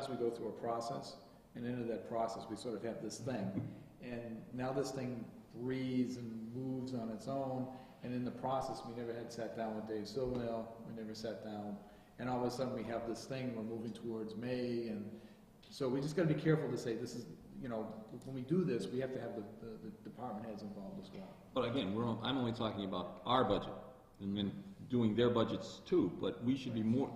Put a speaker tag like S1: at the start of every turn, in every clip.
S1: sometimes we go through a process, and into that process, we sort of have this thing. And now this thing breathes and moves on its own, and in the process, we never had sat down with Dave Silvernail, we never sat down. And all of a sudden, we have this thing, we're moving towards May, and so we just gotta be careful to say, this is, you know, when we do this, we have to have the, the- the department heads involved as well.
S2: But again, we're, on- I'm only talking about our budget, and then doing their budgets too, but we should be more,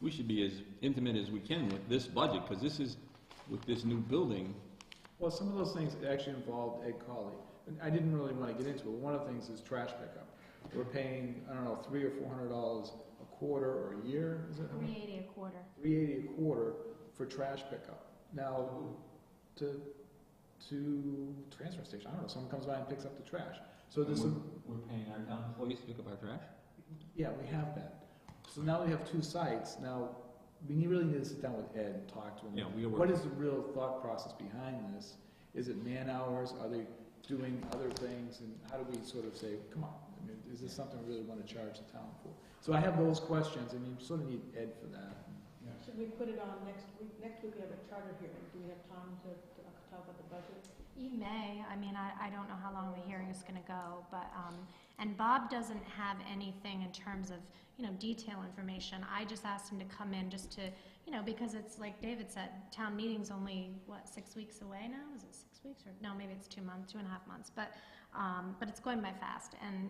S2: we should be as intimate as we can with this budget, because this is, with this new building,
S1: Well, some of those things actually involved Ed Colley. And I didn't really want to get into it. One of the things is trash pickup. We're paying, I don't know, three or four hundred dollars a quarter or a year, is it?
S3: Three eighty a quarter.
S1: Three eighty a quarter for trash pickup. Now, to, to transfer station, I don't know, someone comes by and picks up the trash. So there's some,
S4: We're paying our town
S2: employees pick up our trash?
S1: yeah, we have that. So now we have two sites. Now, we need- really need to sit down with Ed and talk to him.
S2: Yeah, we are
S1: What
S2: working.
S1: is the real thought process behind this? Is it man hours? Are they doing other things? And how do we sort of say, come on, I mean, is this something we really want to charge the town for? So I have those questions, and you sort of need Ed for that.
S5: Should we put it on next week? Next week we have a charter hearing. Do we have time to, to talk about the budget?
S3: You may, I mean, I, I don't know how long the hearing is gonna go, but, um, and Bob doesn't have anything in terms of, you know, detail information. I just asked him to come in just to, you know, because it's like David said, town meeting's only, what, six weeks away now? Is it six weeks or, no, maybe it's two months, two and a half months, but, um, but it's going by fast and,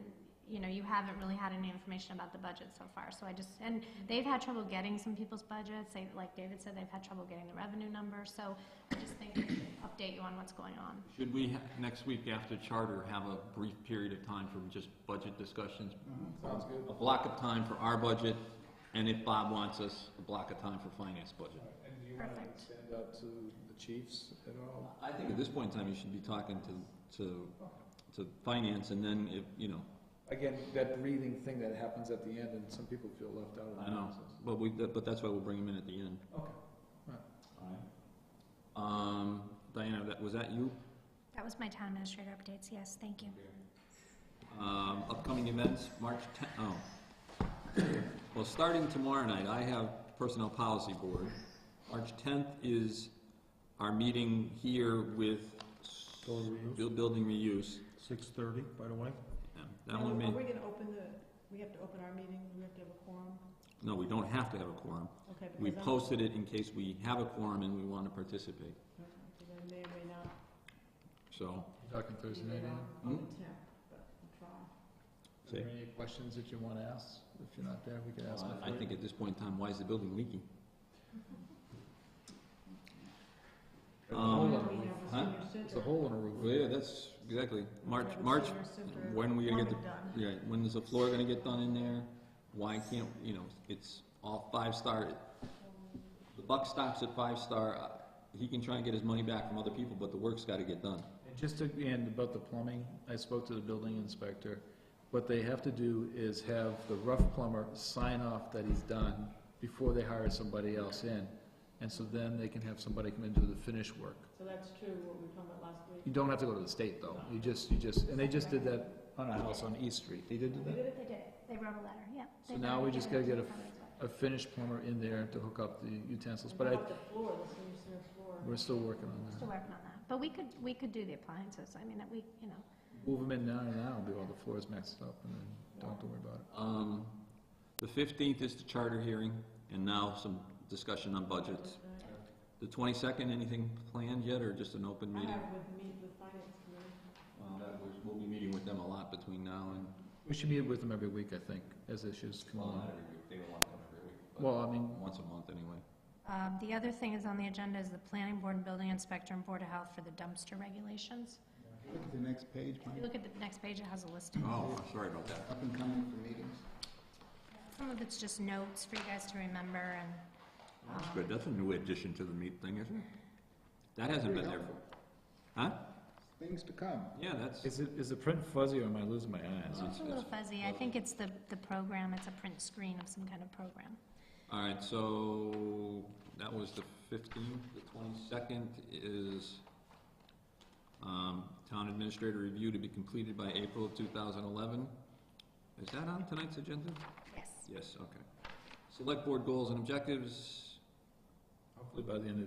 S3: you know, you haven't really had any information about the budget so far, so I just, and they've had trouble getting some people's budgets. They, like David said, they've had trouble getting the revenue number, so I just think we should update you on what's going on.
S2: Should we, ha- next week after charter, have a brief period of time for just budget discussions?
S1: Sounds good.
S2: A block of time for our budget, and if Bob wants us, a block of time for finance budget.
S1: And do you
S3: wanna
S1: want
S3: Perfect.
S1: to stand up to the chiefs at all?
S2: I think at this point in time, you should be talking to, to, to finance, and then if, you know,
S1: Again, that breathing thing that happens at the end, and some people feel left out of the
S2: I know.
S1: process.
S2: but we, but that's why we'll bring him in at the end.
S1: Okay.
S2: Um, Diana, that, was that you?
S3: That was my town administrator updates, yes, thank you.
S2: Um, upcoming events, March tenth, oh. Well, starting tomorrow night, I have Personnel Policy Board. March tenth is our meeting here with s- bu- building reuse.
S6: Six thirty, by the way.
S2: Yeah, That one
S5: Are
S2: may,
S5: we gonna open the, we have to open our meeting? We have to have a quorum?
S2: no, we don't have to have a quorum.
S5: Okay.
S2: We
S5: because I'm-
S2: posted it in case we have a quorum and we want to participate,
S5: okay, Because I may or may not
S2: so.
S1: Talking
S5: be
S1: Thursday night,
S5: there
S1: Ann?
S5: on, on the tenth, but I'll try.
S1: Are there any questions that you want to ask? If you're not there, we can ask. them
S2: I
S1: for you.
S2: think at this point in time, why is the building leaking?
S1: There's a
S2: Um,
S1: hole in
S5: Why
S1: the
S5: don't we
S1: roof.
S5: have a
S2: huh?
S5: senior
S1: There's
S5: center?
S1: a hole in the
S2: Well, yeah,
S1: roof.
S2: that's, exactly.
S5: We
S2: March,
S5: have a
S2: March,
S5: senior center
S2: when are we gonna get the
S5: foreman done.
S2: Yeah, when is the floor gonna get done in there? Why can't, you know, it's all five-star, the buck stops at five-star, Uh, he can try and get his money back from other people, but the work's gotta get done.
S1: And just to, and about the plumbing, I spoke to the building inspector. What they have to do is have the rough plumber sign off that he's done before they hire somebody else in. And so then they can have somebody come and do the finish work.
S5: So that's true, what we were talking about last week.
S1: You don't have to go to the state, though. You just, you just, and they just did that on a house on East Street. They did do that?
S3: They did it, they wrote a letter, yeah.
S1: So
S3: They
S1: now
S3: wrote
S1: we
S3: it,
S1: just
S3: gave it
S1: gotta
S3: to
S1: get
S3: the
S1: A finished plumber in there to hook up the utensils,
S5: And
S1: but
S5: how
S1: I,
S5: about the floor, the senior center floor?
S1: we're still working on
S3: We're
S1: that.
S3: Still working on that, but we could, we could do the appliances, I mean, that we, you know,
S1: Move them in now and now, be all the floors mixed up, and then don't have to worry about it.
S2: Um, the fifteenth is the charter hearing, and now some discussion on budgets. The twenty-second, anything planned yet, or just an open
S5: I
S2: meeting?
S5: have with me, with finance committee.
S2: Well, Um, that was- We'll be meeting with them a lot between now and.
S1: We should meet with them every week, I think, as issues come along.
S2: every week, they don't want them every week,
S1: Well, I mean,
S2: Once a month, anyway.
S3: um, the other thing is on the agenda is the planning board and building inspector and board of health for the dumpster regulations.
S6: Look at the next page,
S3: If you
S6: Mike.
S3: look at the next page, it has a list of,
S2: Oh, sorry about that.
S6: Up and coming for meetings.
S3: some of it's just notes for you guys to remember and,
S2: That's
S3: um,
S2: good, that's a new addition to the meat thing, isn't it? That hasn't been there for, huh?
S6: Things to come.
S2: Yeah, that's,
S1: is it, is the print fuzzy, or am I losing my eyes?
S2: Well,
S3: it's a little fuzzy, I think it's the, the program, it's a print screen of some kind of program.
S2: all right, so that was the fifteenth, the twenty-second is, um, town administrator review to be completed by April of two thousand eleven. Is that on tonight's agenda?
S3: Yes.
S2: Yes, okay. Select board goals and objectives,
S6: How
S2: hopefully by the end of